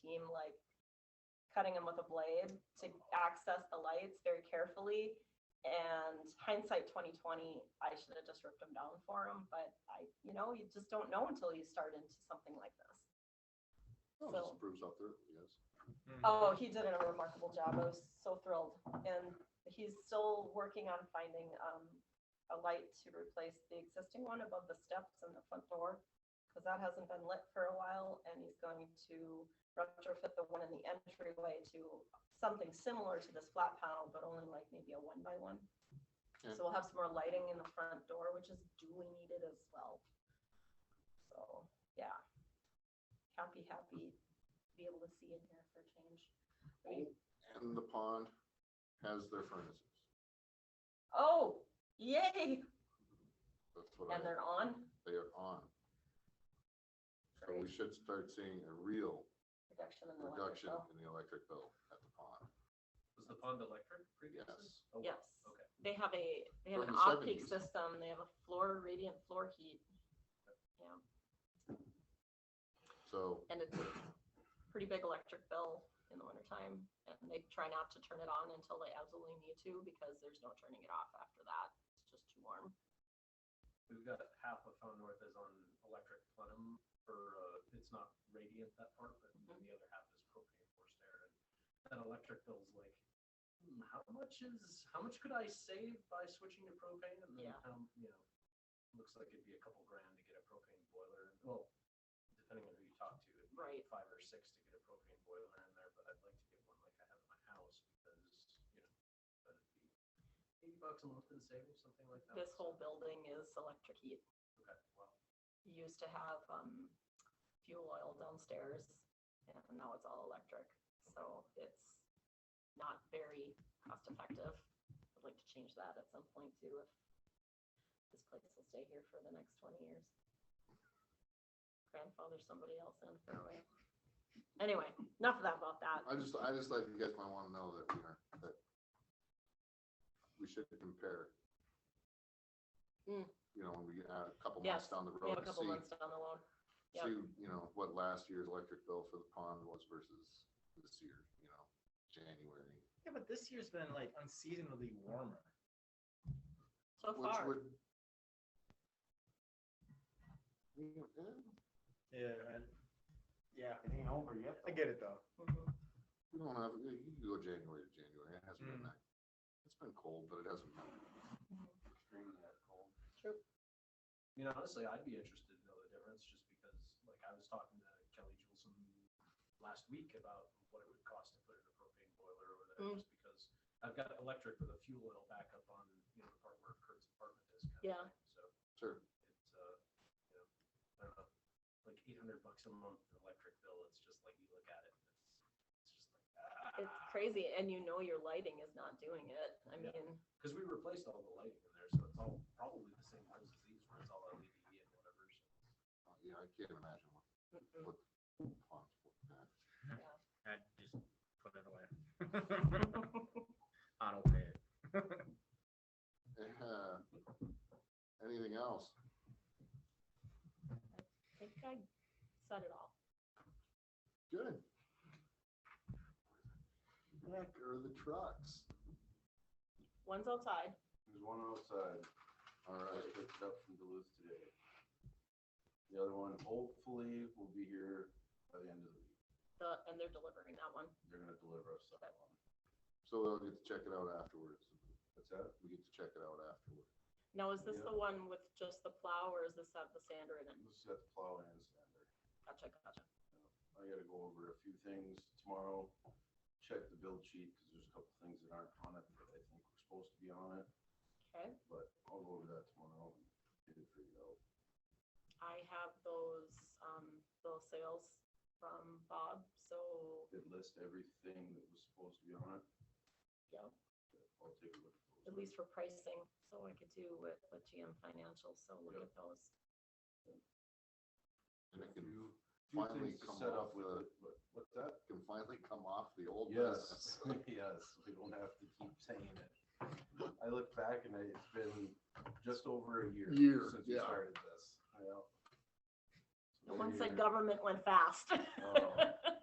seem like cutting them with a blade to access the lights very carefully. And hindsight 2020, I should have just ripped them down for them, but I, you know, you just don't know until you start into something like this. Oh, So- just proves out there, yes. Mm. Mm-hmm. Oh, he did a remarkable job. I was so thrilled. And he's still working on finding um, a light to replace the existing one above the steps and the front door because that hasn't been lit for a while. And he's going to retrofit the one in the entryway to something similar to this flat panel, but only like maybe a one by one. Yeah. So we'll have some more lighting in the front door, which is duly needed as well. So, yeah. Happy, happy to be able to see in here for a change. I mean, And the pond has their furnaces. Oh, yay! That's what I, And they're on. they are on. So we Great. should start seeing a real Reduction in the electric reduction bill. in the electric bill at the pond. Was the pond electric previously? Yes. Oh, wow. Yes. Okay. They have a, they have an From the optic 70s. system. They have a floor radiant floor heat. Yeah, So and it's a pretty big electric bill in the wintertime. And they try not to turn it on until they absolutely need to because there's no turning it off after that. It's just too warm. We've got half of Found North is on electric plenum, or uh, it's not radiant that part, but then Mm-hmm. the other half is propane forced air. And that electric bill's like, hmm, how much is, how much could I save by switching to propane? And then Yeah. how, you know, looks like it'd be a couple grand to get a propane boiler. Well, depending on who you talk to, it might be Right. five or six to get a propane boiler in there, but I'd like to get one like I have in my house because, you know, that'd be eighty bucks a month in savings, something like that. This whole building is electric heat. Okay, wow. You used to have um, fuel oil downstairs, and now it's all electric. So it's not very cost effective. I'd like to change that at some point too, if this place will stay here for the next twenty years. Grandfather somebody else in for a way. Anyway, enough of that about that. I just, I just like you guys might want to know that we are, that we should compare. Mm. You know, when we add a couple months Yes, down the We road have a to couple see, months down the road. yeah. see, you know, what last year's electric bill for the pond was versus this year, you know, January. Yeah, but this year's been like unseasonably warmer. So Which far, would. We Yeah. Yeah, It ain't over yet. I get it though. Mhm. don't have, you you can go January to January, it hasn't been Mm. that, it's been cold, but it hasn't been. Extremely that cold. true. I mean, honestly, I'd be interested to know the difference just because, like, I was talking to Kelly Juleson last week about what it would cost to put in a propane boiler over there, Mm. just because I've got electric with a fuel oil backup on, you know, the part where Kurt's apartment is. kind of Yeah. thing. So Sure, it's, uh, you know, I don't know, like eight hundred bucks a month electric bill. It's just like you look at it, and it's, it's just like, ah. It's crazy, and you know your lighting is not doing it. I Yeah. mean, Because we replaced all the lighting in there, so it's all probably the same ones as these, where it's all LED and whatever. So Uh, yeah, I can't imagine what mm-mm. ponds would have. I just put it away. I don't pay it. Uh, Anything else? I think I said it all. Good. Heck, are the trucks? One's outside. There's one outside. All I right, picked it up from Duluth today. The other one hopefully will be here by the end of the week. The, and they're delivering that one. They're gonna deliver us that one. so we'll get to check it out afterwards. What's that? We get to check it out afterwards. Now, is this Yeah. the one with just the plow or is this have the sander in it? This is at the plow and sander. Gotcha, gotcha. I gotta go over a few things tomorrow, check the build sheet, cause there's a couple things that aren't on it that I think were supposed to be on it, Okay. but I'll go over that tomorrow and get it figured out. I have those, um, those sales from Bob, so, Did list everything that was supposed to be on it. yeah, I'll take a look. at at those. least for pricing. So I could do with, with GM Financial, so look Yeah. at those. And it can, Few- few finally things to come set off up with the- it, but- What's that? can finally come off the old Yes, list. yes, we don't have to keep saying it. I look back and it's been just over a year. Year, Since we yeah. started this. Yeah. No one Been a said year. government went fast. Oh.